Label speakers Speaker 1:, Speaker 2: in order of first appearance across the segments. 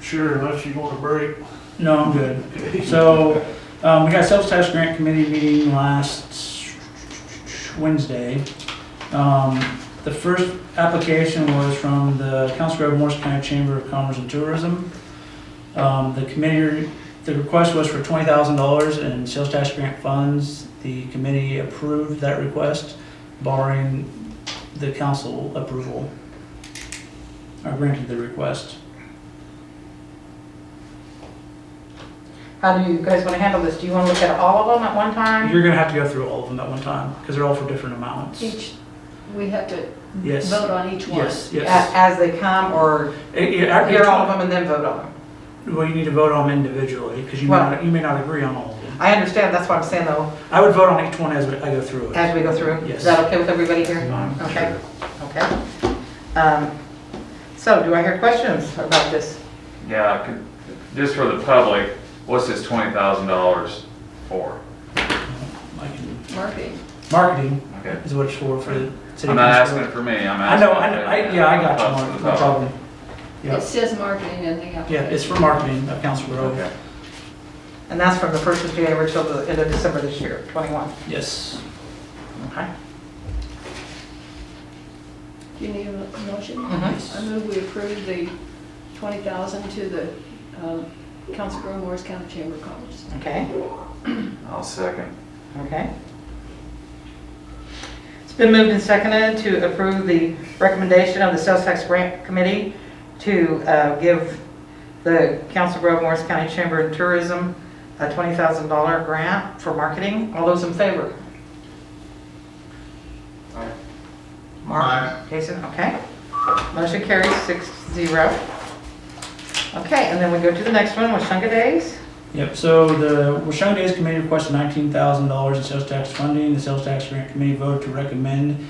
Speaker 1: Sure, unless you want a break.
Speaker 2: No, I'm good. So, um, we got sales tax grant committee meeting last Wednesday. Um, the first application was from the Council Grove Morris County Chamber of Commerce and Tourism. Um, the committee, the request was for twenty thousand dollars in sales tax grant funds. The committee approved that request barring the council approval. Or granted the request.
Speaker 3: How do you guys want to handle this? Do you want to look at all of them at one time?
Speaker 2: You're gonna have to go through all of them at one time, because they're all for different amounts.
Speaker 4: Each, we have to
Speaker 2: Yes.
Speaker 4: vote on each one.
Speaker 2: Yes,
Speaker 3: A-
Speaker 2: yes.
Speaker 3: As they come, or
Speaker 2: It- it- I-
Speaker 3: hear all of them and then vote on them?
Speaker 2: Well, you need to vote on them individually, because you may
Speaker 3: Well-
Speaker 2: not, you may not agree on all of them.
Speaker 3: I understand, that's what I'm saying though,
Speaker 2: I would vote on each one as we- I go through it.
Speaker 3: as we go through.
Speaker 2: Yes.
Speaker 3: Is that okay with everybody here?
Speaker 2: Um,
Speaker 3: Okay, okay. Um, So do I hear questions about this?
Speaker 5: Yeah, I could- just for the public, what's this twenty thousand dollars for?
Speaker 2: I can-
Speaker 4: Marketing.
Speaker 2: Marketing
Speaker 5: Okay,
Speaker 2: is what it's for, for the city.
Speaker 5: I'm not
Speaker 2: council.
Speaker 5: asking it for me, I'm
Speaker 2: I
Speaker 5: asking.
Speaker 2: know, I, know, I, yeah, I got you,
Speaker 5: For
Speaker 2: Mark,
Speaker 5: the
Speaker 2: no
Speaker 5: public.
Speaker 2: problem.
Speaker 4: It
Speaker 2: Yeah,
Speaker 4: says marketing in the
Speaker 2: yeah, it's
Speaker 4: application.
Speaker 2: for marketing of Council Grove,
Speaker 5: Okay.
Speaker 3: And that's from the 1st of January till the end of December this year, 21.
Speaker 2: yes.
Speaker 3: Okay.
Speaker 4: Do you need a motion?
Speaker 3: Mhm.
Speaker 4: I move we approve the 20,000 to the um, Council Grove Morris County Chamber of Commerce.
Speaker 3: Okay,
Speaker 5: I'll second.
Speaker 3: okay. It's been moved and seconded to approve the recommendation of the Sales Tax Grant Committee to uh, give the Council Grove Morris County Chamber of Tourism a $20,000 grant for marketing. All those in favor? Mark? Jason, okay. Motion carries six zero. Okay, and then we go to the next one, Washunga Days.
Speaker 2: Yep, so the Washington Days Committee requested nineteen thousand dollars in sales tax funding. The sales tax grant committee voted to recommend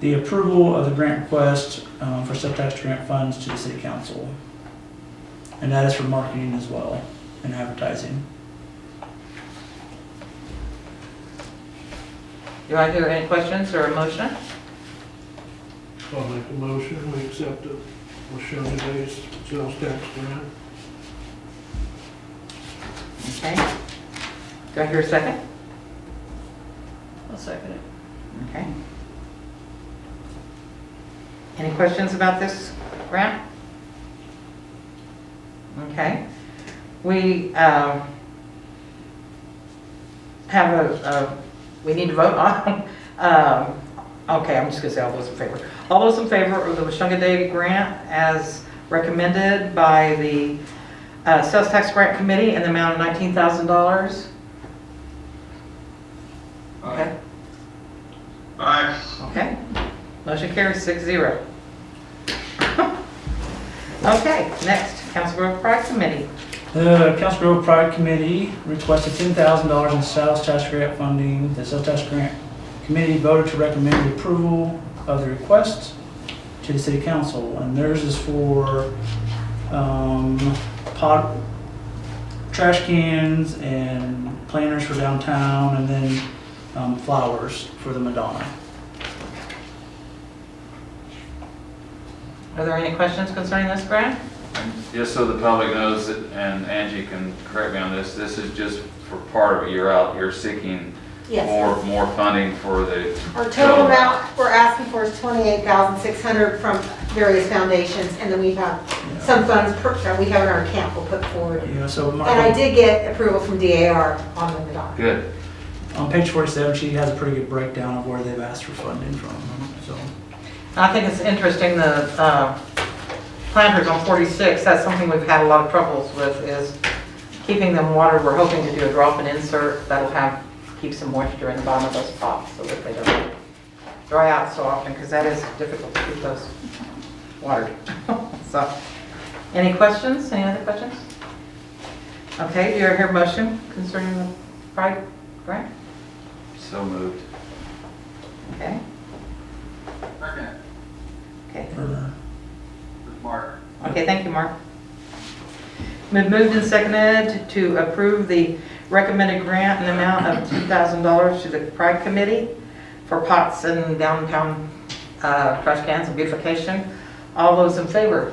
Speaker 2: the approval of the grant request um, for sales tax grant funds to the city council. And that is for marketing as well and advertising.
Speaker 3: Do I hear any questions or a motion?
Speaker 1: I'll make a motion, we accept it. We'll show today's sales tax grant.
Speaker 3: Okay. Do I hear a second?
Speaker 4: I'll second it.
Speaker 3: Okay. Any questions about this grant? Okay. We um, have a, a- we need to vote on, um, okay, I'm just gonna say all those in favor. All those in favor of the Washunga Day grant as recommended by the uh, Sales Tax Grant Committee in the amount of $19,000? Okay. Okay, motion carries six zero. Okay, next, Council Grove Pride Committee.
Speaker 2: The Council Grove Pride Committee requested ten thousand dollars in sales tax grant funding. The sales tax grant committee voted to recommend the approval of the request to the city council. And theirs is for, um, pot, trash cans and planters for downtown and then, um, flowers for the Madonna.
Speaker 3: Are there any questions concerning this grant?
Speaker 5: Just so the public knows, that- and Angie can correct me on this, this is just for part of it, you're out, you're seeking
Speaker 6: Yes.
Speaker 5: more, more funding for the.
Speaker 6: Our total amount we're asking for is 28,600 from various foundations, and then we have some funds per- that we have in our account we'll put forward.
Speaker 2: Yeah, so Mark,
Speaker 6: And I did get approval from DAR on the Madonna.
Speaker 5: Good,
Speaker 2: on page forty-seven, she has a pretty good breakdown of where they've asked for funding from, so.
Speaker 3: I think it's interesting, the uh, planters on 46, that's something we've had a lot of troubles with, is keeping them watered. We're hoping to do a drop and insert that'll have, keep some moisture in the bottom of those pots so that they don't dry out so often, because that is difficult to keep those watered. So, any questions? Any other questions? Okay, do you hear a motion concerning the pride grant?
Speaker 5: so moved.
Speaker 3: Okay,
Speaker 7: Second,
Speaker 3: okay.
Speaker 2: for-
Speaker 7: with Mark.
Speaker 3: Okay, thank you, Mark. Been moved and seconded to approve the recommended grant in the amount of $2,000 to the Pride Committee for pots and downtown uh, trash cans and beautification. All those in favor?